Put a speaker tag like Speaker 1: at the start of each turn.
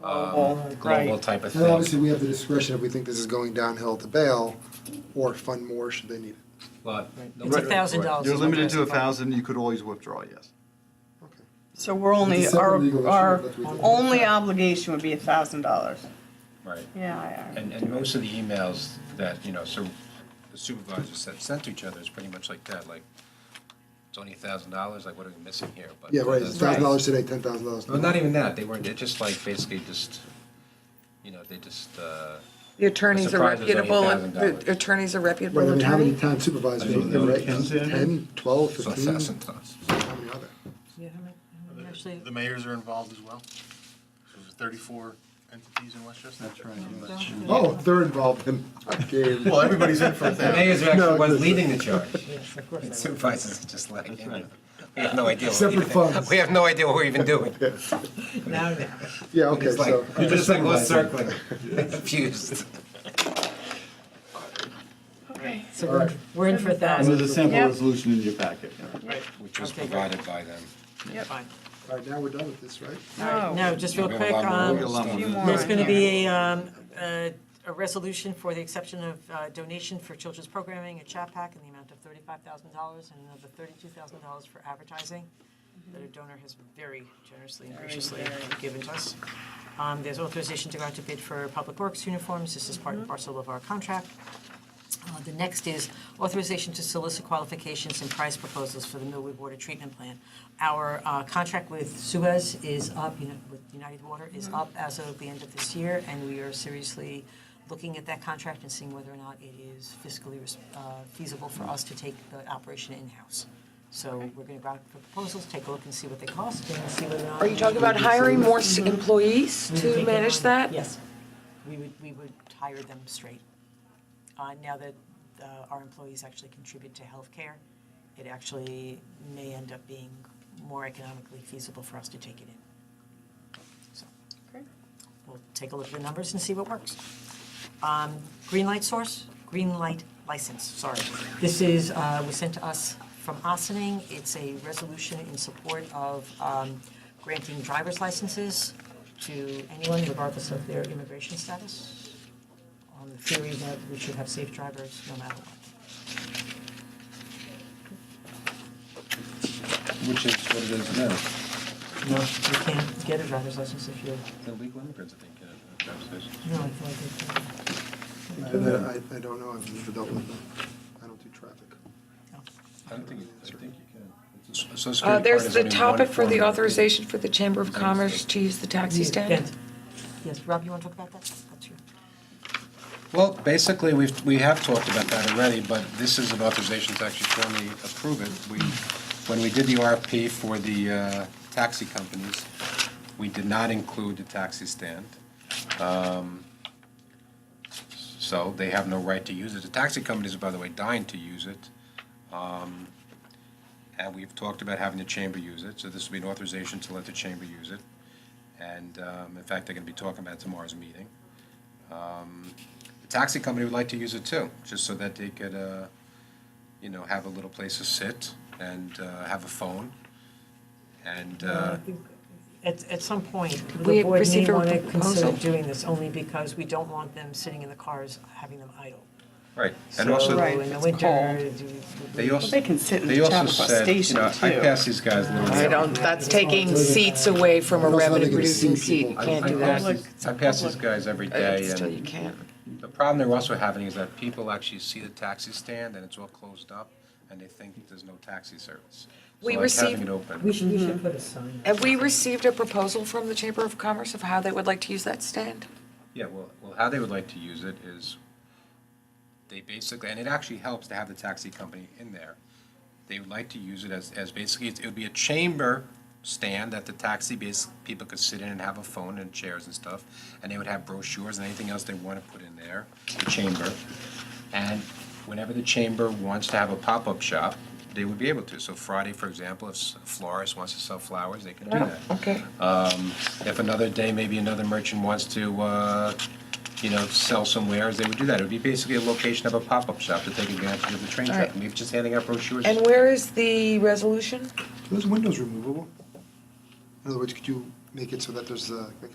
Speaker 1: Global,
Speaker 2: um,
Speaker 1: right.
Speaker 2: global type of
Speaker 3: And obviously,
Speaker 2: thing.
Speaker 3: we have the discretion if we think this is going downhill to bail or fund more should they need it.
Speaker 2: But
Speaker 1: It's a thousand dollars.
Speaker 4: You're
Speaker 1: is what
Speaker 4: limited to
Speaker 1: they're
Speaker 4: a
Speaker 1: asking.
Speaker 4: thousand, you could always withdraw, yes.
Speaker 3: Okay.
Speaker 5: So we're only,
Speaker 3: It's a separate legal
Speaker 5: our,
Speaker 3: issue
Speaker 5: our
Speaker 3: that we can-
Speaker 5: only obligation would be a thousand dollars.
Speaker 2: Right.
Speaker 5: Yeah, I- I-
Speaker 2: And, and most of the emails that, you know, so the supervisors have sent to each other is pretty much like that, like, it's only a thousand dollars, like, what are we missing here? But
Speaker 3: Yeah, right, it's
Speaker 2: that's-
Speaker 3: thousand dollars today, ten thousand dollars
Speaker 2: Well,
Speaker 3: tomorrow.
Speaker 2: not even that, they weren't, they're just like, basically just, you know, they just, uh,
Speaker 6: The attorneys are
Speaker 2: surprise is only
Speaker 6: reputable,
Speaker 2: $1,000.
Speaker 6: the attorneys are reputable
Speaker 3: Right, I mean, how many
Speaker 6: attorney?
Speaker 3: town supervisors, are there, right? Ten, twelve, fifteen? How many are there?
Speaker 1: Actually,
Speaker 7: The mayors are involved as well. So there's 34 entities in Westchester.
Speaker 4: That's right.
Speaker 3: Oh, they're involved in our game.
Speaker 7: Well, everybody's in for
Speaker 2: The
Speaker 7: that.
Speaker 2: mayor's actually was
Speaker 3: it's-
Speaker 2: leading the charge. And Supervisors just letting him, we have no idea. what we're
Speaker 3: Separate
Speaker 2: even-
Speaker 3: funds.
Speaker 2: We have no idea what we're even doing.
Speaker 1: now, now.
Speaker 3: Yeah, okay,
Speaker 2: It's like,
Speaker 3: so.
Speaker 2: we're just like, we're circling, confused.
Speaker 1: So
Speaker 3: All
Speaker 1: we're,
Speaker 3: right.
Speaker 1: we're in for a
Speaker 4: And
Speaker 1: thousand.
Speaker 4: there's a sample
Speaker 5: Yep.
Speaker 4: resolution in your packet. yeah.
Speaker 2: Which was
Speaker 1: Okay, good.
Speaker 2: provided by them.
Speaker 1: Fine.
Speaker 3: All right, now we're done with this, right?
Speaker 1: All right,
Speaker 5: No.
Speaker 1: now, just
Speaker 2: Yeah,
Speaker 1: real
Speaker 2: we have a
Speaker 1: quick,
Speaker 2: lot more
Speaker 1: um,
Speaker 2: to
Speaker 4: Real
Speaker 2: do.
Speaker 4: lump.
Speaker 5: Few more
Speaker 1: There's
Speaker 5: in
Speaker 1: going to
Speaker 5: here.
Speaker 1: be a, um, a, a resolution for the exception of uh, donation for children's programming at Chapac in the amount of thirty-five thousand dollars and another thirty-two thousand dollars for advertising that a donor has very generously and graciously given to us. Um, there's authorization to go out to bid for public works uniforms. This is part and parcel of our contract. Uh, The next is authorization to solicit qualifications and price proposals for the Millwood Water Treatment Plant. Our uh, contract with Suez is up, you know, with United Water
Speaker 6: Mm-hmm.
Speaker 1: is up as of the end of this year, and we are seriously looking at that contract and seeing whether or not it is fiscally res- uh, feasible for us to take the operation in-house. So we're going to go out for proposals, take a look and see what they cost, and see whether or not.
Speaker 6: Are you talking about hiring more s-
Speaker 2: Mm-hmm.
Speaker 6: employees
Speaker 1: We would
Speaker 6: to
Speaker 1: take them
Speaker 6: manage
Speaker 1: on.
Speaker 6: that?
Speaker 1: Yes. We would, we would hire them straight. Uh, Now that uh, our employees actually contribute to healthcare, it actually may end up being more economically feasible for us to take it in. So We'll take a look at the numbers and see what works. Um, Green light source, green light license, sorry. This is, uh, was sent to us from Ossining. It's a resolution in support of um, granting driver's licenses to anyone regardless of their immigration status, on the theory that we should have safe drivers no matter what.
Speaker 2: Which is what it is now.
Speaker 1: No. You can't get a driver's license if you're,
Speaker 2: The legal immigrants, I think, uh, conversation.
Speaker 1: no, I feel like it's-
Speaker 3: And then I, I don't know, I've never dealt with them. I don't do traffic.
Speaker 2: I don't think, I think you can. So
Speaker 6: Uh,
Speaker 2: security
Speaker 6: there's
Speaker 2: card is
Speaker 6: the
Speaker 2: only one
Speaker 6: topic for
Speaker 2: form
Speaker 6: the
Speaker 2: of-
Speaker 6: authorization for the Chamber of
Speaker 2: Thanks.
Speaker 6: Commerce to use the taxi stand.
Speaker 1: Yes. Yes, Rob, you want to talk about that? That's your.
Speaker 2: Well, basically, we've, we have talked about that already, but this is an authorization to actually formally approve it. We, when we did the RFP for the uh, taxi companies, we did not include the taxi stand. Um, So they have no right to use it. The taxi companies are, by the way, dying to use it. Um, And we've talked about having the chamber use it, so this would be an authorization to let the chamber use it. And um, in fact, they're going to be talking about it tomorrow's meeting. The taxi company would like to use it too, just so that they could, uh, you know, have a little place to sit and uh, have a phone. And uh,
Speaker 1: At, at some point,
Speaker 6: we
Speaker 1: the board may
Speaker 6: receive a
Speaker 1: want to consider
Speaker 6: proposal?
Speaker 1: doing this only because we don't want them sitting in the cars, having them idle.
Speaker 2: right, and also
Speaker 1: So
Speaker 5: Right,
Speaker 1: in the
Speaker 5: it's
Speaker 1: winter,
Speaker 5: cold.
Speaker 1: do-
Speaker 2: they
Speaker 5: Well,
Speaker 2: also
Speaker 5: They can sit in
Speaker 2: they
Speaker 5: the
Speaker 2: also
Speaker 5: Chappaqua
Speaker 2: said, you
Speaker 5: Station
Speaker 2: know, I
Speaker 5: too.
Speaker 2: pass these guys. little-
Speaker 6: I don't, that's taking seats away from a
Speaker 3: Also, they're gonna
Speaker 6: revenue-producing
Speaker 3: see
Speaker 6: seat, you
Speaker 3: people.
Speaker 2: I-
Speaker 6: can't
Speaker 2: I
Speaker 6: do
Speaker 2: pass
Speaker 6: that.
Speaker 2: these- I pass these guys every
Speaker 6: Uh,
Speaker 2: day,
Speaker 6: Still,
Speaker 2: and
Speaker 6: you can't.
Speaker 2: the problem they're also having is that people actually see the taxi stand and it's all closed up, and they think there's no taxi service. So,
Speaker 6: We
Speaker 2: like,
Speaker 6: received-
Speaker 2: Having it open.
Speaker 1: We should, we should put a sign.
Speaker 6: Have we received a proposal from the Chamber of Commerce of how they would like to use that stand?
Speaker 2: Yeah, well, well, how they would like to use it is, they basically, and it actually helps to have the taxi company in there. They would like to use it as, as basically, it would be a chamber stand that the taxi base, people could sit in and have a phone and chairs and stuff. And they would have brochures and anything else they want to put in there, the chamber. And whenever the chamber wants to have a pop-up shop, they would be able to. So Friday, for example, if s- a florist wants to sell flowers, they can do that.
Speaker 6: Okay.
Speaker 2: Um, If another day, maybe another merchant wants to, uh, you know, sell some wares, they would do that. It would be basically a location of a pop-up shop to take advantage of the train traffic, maybe just handing out brochures.
Speaker 6: And where is the resolution?
Speaker 3: Are those windows removable? In other words, could you make it so that there's a, like,